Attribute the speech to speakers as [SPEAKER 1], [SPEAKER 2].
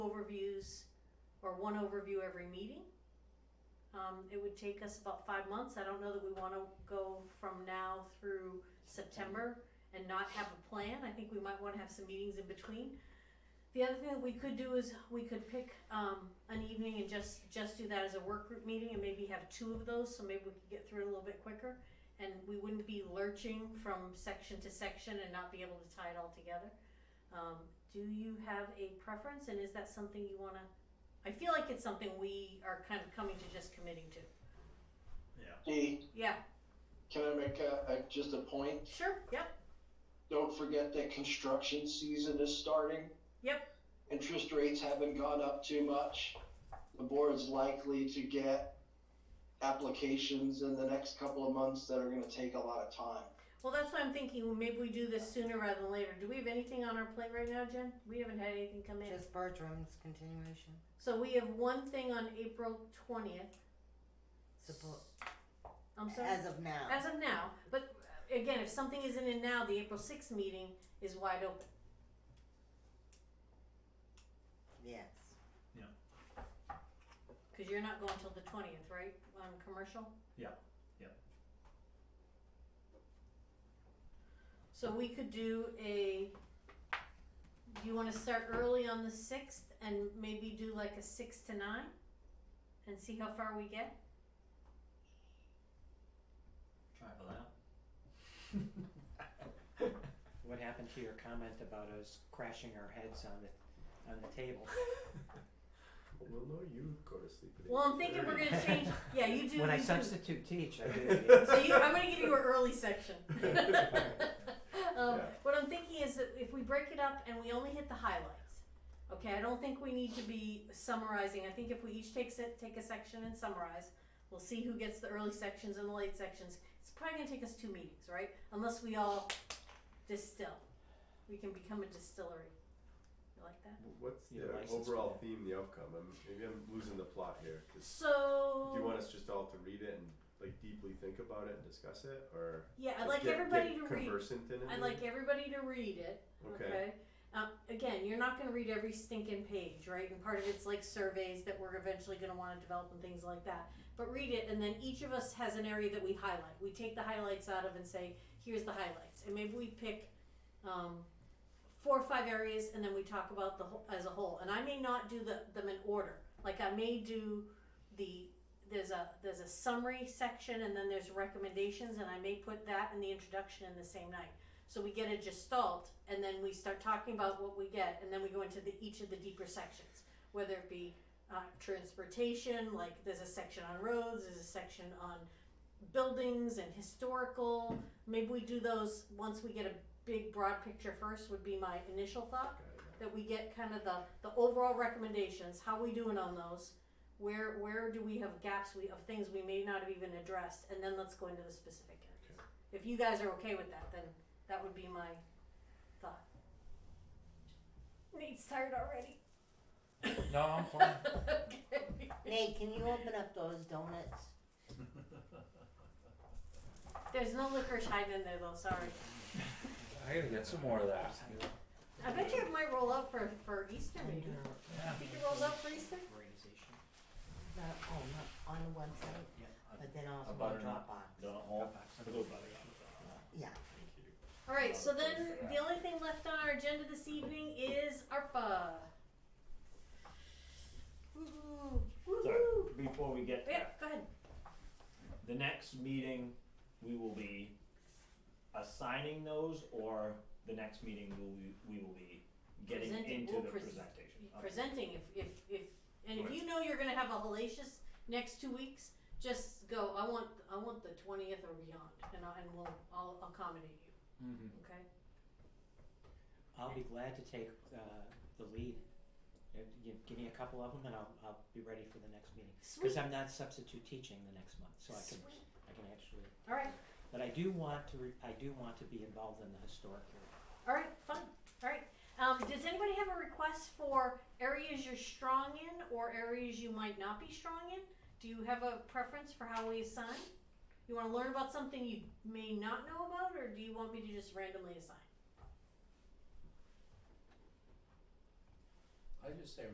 [SPEAKER 1] overviews or one overview every meeting. Um, it would take us about five months. I don't know that we want to go from now through September and not have a plan. I think we might want to have some meetings in between. The other thing that we could do is we could pick um, an evening and just just do that as a work group meeting and maybe have two of those so maybe we could get through it a little bit quicker and we wouldn't be lurching from section to section and not be able to tie it all together. Um, do you have a preference and is that something you want to? I feel like it's something we are kind of coming to just committing to.
[SPEAKER 2] Dee,
[SPEAKER 1] Yeah,
[SPEAKER 2] can I make a, a, just a point?
[SPEAKER 1] sure, yep.
[SPEAKER 2] Don't forget that construction season is starting.
[SPEAKER 1] Yep.
[SPEAKER 2] Interest rates haven't gone up too much. The board's likely to get applications in the next couple of months that are gonna take a lot of time.
[SPEAKER 1] Well, that's what I'm thinking. Well, Maybe we do this sooner rather than later. Do we have anything on our plate right now, Jen? We haven't had anything come in.
[SPEAKER 3] Just Bertram's continuation.
[SPEAKER 1] so we have one thing on April 20th.
[SPEAKER 3] Suppo-
[SPEAKER 1] I'm sorry.
[SPEAKER 3] as of now.
[SPEAKER 1] As of now. But uh, again, if something isn't in now, the April 6th meeting is wide open.
[SPEAKER 3] yes.
[SPEAKER 1] Because you're not going till the 20th, right? On commercial?
[SPEAKER 4] Yeah, yeah.
[SPEAKER 1] So we could do a. Do you want to start early on the 6th and maybe do like a 6 to 9 and see how far we get?
[SPEAKER 4] Travel out.
[SPEAKER 5] What happened to your comment about us crashing our heads on the on the table?
[SPEAKER 6] Well, no, you go to sleep. at
[SPEAKER 1] Well, I'm thinking we're
[SPEAKER 6] 8:30.
[SPEAKER 1] gonna change. Yeah, you do.
[SPEAKER 5] When I
[SPEAKER 1] you do.
[SPEAKER 5] substitute teach, I do.
[SPEAKER 1] So you, I'm gonna give you an early section. um,
[SPEAKER 6] Yeah.
[SPEAKER 1] What I'm thinking is that if we break it up and we only hit the highlights, okay, I don't think we need to be summarizing. I think if we each take se- take a section and summarize, we'll see who gets the early sections and the late sections. It's probably gonna take us two meetings, right? Unless we all distill, we can become a distillery. You like that?
[SPEAKER 6] W- What's
[SPEAKER 5] Your
[SPEAKER 6] the
[SPEAKER 5] license
[SPEAKER 6] overall
[SPEAKER 5] plate.
[SPEAKER 6] theme, the outcome? I'm, maybe I'm losing the plot here. 'cause
[SPEAKER 1] So
[SPEAKER 6] do you want us just all to read it and like deeply think about it and discuss it, or
[SPEAKER 1] yeah, I'd
[SPEAKER 6] just
[SPEAKER 1] like
[SPEAKER 6] get,
[SPEAKER 1] everybody
[SPEAKER 6] get
[SPEAKER 1] to read.
[SPEAKER 6] conversant in it?
[SPEAKER 1] I'd
[SPEAKER 6] maybe?
[SPEAKER 1] like everybody to read it.
[SPEAKER 6] Okay.
[SPEAKER 1] Okay. Uh, again, you're not going to read every stinking page, right? And part of it's like surveys that we're eventually going to want to develop and things like that. But read it, and then each of us has an area that we highlight. We take the highlights out of and say, here's the highlights. And maybe we pick um, four or five areas, and then we talk about the whole, as a whole. And I may not do the, them in order. Like I may do the there's a there's a summary section, and then there's recommendations, and I may put that in the introduction in the same night. So we get a gestalt, and then we start talking about what we get, and then we go into the, each of the deeper sections, whether it be uh, transportation, like there's a section on roads, there's a section on buildings and historical. Maybe we do those once we get a big broad picture first. Would be my initial thought
[SPEAKER 6] Got it.
[SPEAKER 1] that we get kind of the the overall recommendations. How we doing on those? Where where do we have gaps we, of things we may not have even addressed? And then let's go into the specific areas. If you guys are okay with that, then that would be my thought. Nate's tired already.
[SPEAKER 5] No, I'm fine.
[SPEAKER 1] okay.
[SPEAKER 3] Nate, can you open up those donuts?
[SPEAKER 1] There's no licorice hiding in there though. Sorry.
[SPEAKER 7] I gotta get some more of that.
[SPEAKER 1] I bet you it might roll up for for Easter maybe.
[SPEAKER 5] Yeah.
[SPEAKER 1] Think it rolls up for Easter?
[SPEAKER 5] Organization.
[SPEAKER 3] Not, oh, not on the one side,
[SPEAKER 5] Yeah.
[SPEAKER 3] but then
[SPEAKER 7] A
[SPEAKER 3] also on
[SPEAKER 7] butternut.
[SPEAKER 3] Dropbox.
[SPEAKER 7] Donut hole.
[SPEAKER 5] Dropbox.
[SPEAKER 3] Yeah.
[SPEAKER 1] All right. So then the only thing left on our agenda this evening is ARPA. Woo-hoo. Woo-hoo.
[SPEAKER 7] So, before we get
[SPEAKER 1] Yeah.
[SPEAKER 7] there,
[SPEAKER 1] Go ahead.
[SPEAKER 7] the next meeting, we will be assigning those, or the next meeting, will we, we will be getting
[SPEAKER 1] Presenting.
[SPEAKER 7] into
[SPEAKER 1] We'll
[SPEAKER 7] the
[SPEAKER 1] pres-
[SPEAKER 7] presentation. Okay.
[SPEAKER 1] Presenting. If if if and if
[SPEAKER 7] Right.
[SPEAKER 1] you know you're gonna have a hellacious next two weeks, just go. I want I want the twentieth or beyond, and I, and we'll I'll accommodate you.
[SPEAKER 5] Mm-hmm.
[SPEAKER 1] Okay.
[SPEAKER 5] I'll be glad to take uh, the lead. Uh, gi- Give me a couple of them, and I'll I'll be ready for the next meeting. Because
[SPEAKER 1] Sweet.
[SPEAKER 5] I'm not substitute teaching the next month, so I can
[SPEAKER 1] Sweet.
[SPEAKER 5] I can actually.
[SPEAKER 1] All right.
[SPEAKER 5] But I do want to re- I do want to be involved in the historic area.
[SPEAKER 1] All right, fun. All right. Um, does anybody have a request for areas you're strong in or areas you might not be strong in? Do you have a preference for how we assign? You want to learn about something you may not know about, or do you want me to just randomly assign?
[SPEAKER 8] I just say